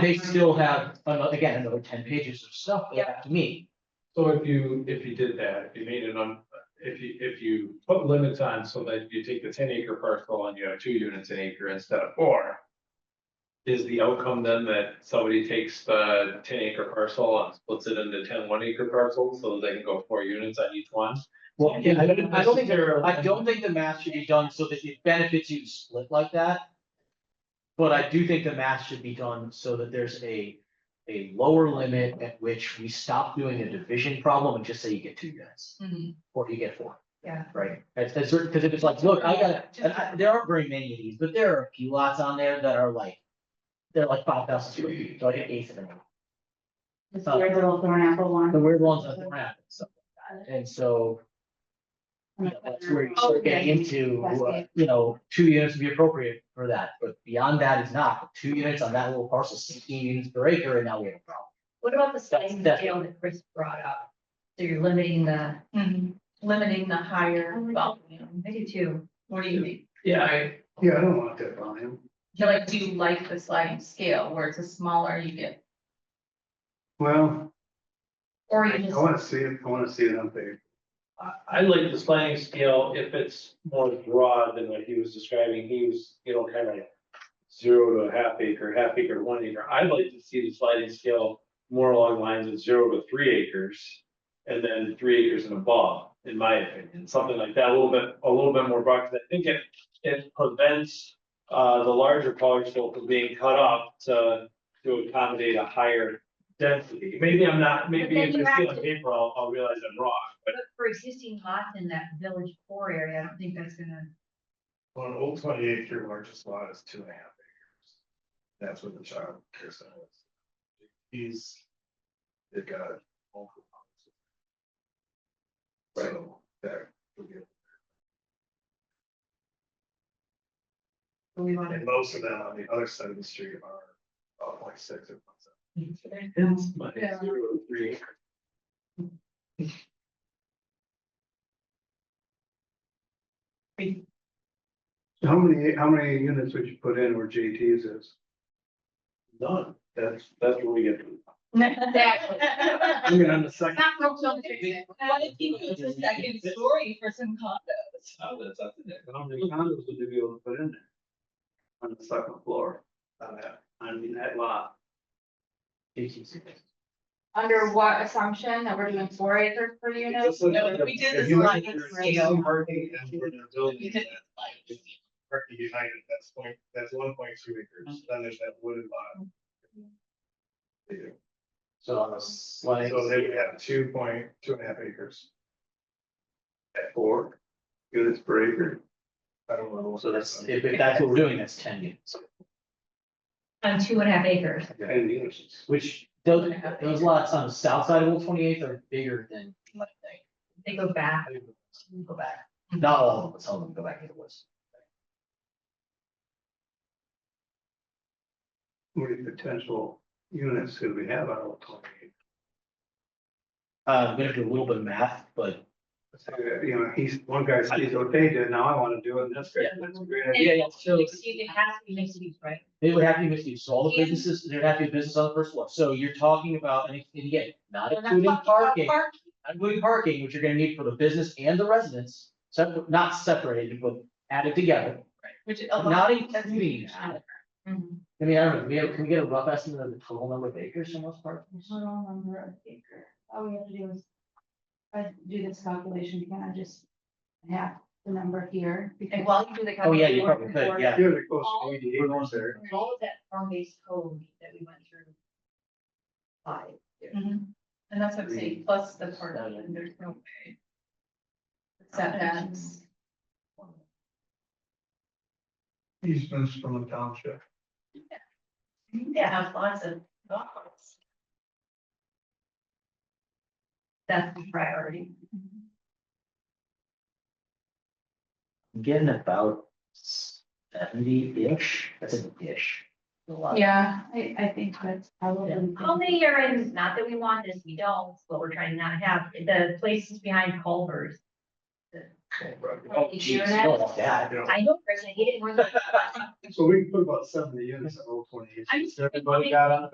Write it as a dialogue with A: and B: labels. A: they still have, ano- again, another ten pages of stuff they have to meet.
B: So if you, if you did that, if you made it on, if you, if you put limits on so that you take the ten acre parcel and you have two units an acre instead of four. Is the outcome then that somebody takes the ten acre parcel and splits it into 10 one acre parcels, so they can go four units on each one?
A: Well, yeah, I don't, I don't think,
B: Necessarily.
A: I don't think the math should be done so that it benefits you to split like that. But I do think the math should be done so that there's a, a lower limit at which we stop doing a division problem and just say you get two units.
C: Mhm.
A: Or you get four.
C: Yeah.
A: Right, that's, that's, because if it's like, look, I got, and I, there aren't very many of these, but there are a few lots on there that are like. They're like five thousand square feet, so I get eighth of them.
D: This weird little thorn apple
A: The
D: one.
A: weird ones at the ramp and stuff like that. And so. you know, That's where you start getting into, uh, you know, two units would be appropriate for that, but beyond that is not. Two units on that little parcel, sixteen units per acre, and now we have a problem.
E: What about the size and
A: That's-
E: scale that Chris brought up? So you're limiting the,
C: Mhm. Limiting the higher volume.
E: maybe two.
C: What do you think?
F: Yeah, I, yeah, I don't want that volume.
C: Do you like, do you like the sliding scale where it's a smaller you get,
F: Well,
C: or
F: I
C: you just,
F: wanna see it, I wanna see it on paper.
B: I, I like the sliding scale if it's more broad than what he was describing, he was, you know, kind of. Zero to a half acre, half acre to one acre, I'd like to see the sliding scale more along lines of zero to three acres. And then three acres and above, in my opinion, something like that, a little bit, a little bit more broad, because I think it, it prevents. Uh, the larger parcel from being cut off to, to accommodate a higher density, maybe I'm not, maybe
E: then
B: if
E: you
B: you see
E: have
B: on
E: to-
B: paper, I'll, I'll realize I'm wrong, but.
E: But for existing lots in that village core area, I don't think that's gonna,
F: Well, an old twenty acre largest lot is two and a half acres. That's what the child care center is. He's, they've got. multiple houses. So, there. we get-
E: we want
F: And most of them on the other side of the street are uh, like six or
E: to.
F: It's my
C: Yeah.
F: zero to three. How many, how many units would you put in where JT's is? None, that's, that's where we get.
C: Exactly.
F: I mean, on the second,
C: Not real children. What if you use a second story for some condos?
B: Oh, that's up to them.
F: how many condos would you be able to put in there? On the second floor, on that, I mean, that lot.
D: Under what assumption that we're doing four acres per unit?
C: No, if we did this
F: If you look
C: sliding
F: at your
C: scale-
F: existing parking and where they're building
C: You could-
F: that, it's Directly behind it, that's point, that's one point two acres, then there's that wooded lot.
C: Mm-hmm.
A: So on the slide.
F: So they would have two point, two and a half acres. At four units per acre. I don't know. Uh,
A: So that's, if, if that's what we're doing, that's ten units,
E: On two and a half acres.
F: Ten units.
A: which those, those lots on the south side of Old Twenty Eighth are bigger than, I think.
E: They go back.
A: Go back. Not all of them, but some of them go back into the woods.
F: How many potential units could we have out of twenty?
A: Uh, I'm gonna do a little bit of math, but.
F: uh, You know, he's, one guy says, okay, dude, now I wanna do it, and that's great, that's a great. idea.
A: Yeah, yeah. So
E: It has to be mixed use, right?
A: They would have to be mixed use, so all the
C: And-
A: businesses, there'd have to be business on the first floor, so you're talking about, and and again, not
C: We're not
A: including
C: talking about
A: parking.
C: parking.
A: Not including parking, which you're gonna need for the business and the residents, so not separated, but added together,
C: Which a lot.
A: not including that.
E: Mhm.
A: I mean, I don't know, we have, can we get a rough estimate of the total number of acres in most parks? Oh,
D: Total number of acre. All we have to do is, if I do this calculation, can I just have the number here?
E: And while you do the.
A: Oh, yeah, you probably
E: calculation,
A: could, yeah.
F: You're the close to eighty acres there.
E: All of that farm-based code that we went through. Five.
C: Mhm. And that's what I'm saying, plus the part of it, there's no way. Setbacks.
F: Easements from the township.
E: Yeah, have lots of thoughts. That's the priority.
A: Getting about seventy-ish, that's an ish. A lot.
D: Yeah, I, I think that's probably.
E: How many are in, not that we want this, we don't, but we're trying to not have, the places behind Culvers.
A: Oh, geez,
E: Sure.
A: don't want that.
F: Yeah.
E: I know, Chris, I hate it more than.
F: So we can put about seventy units at Old Twenty.
E: I'm just
F: Everybody got on the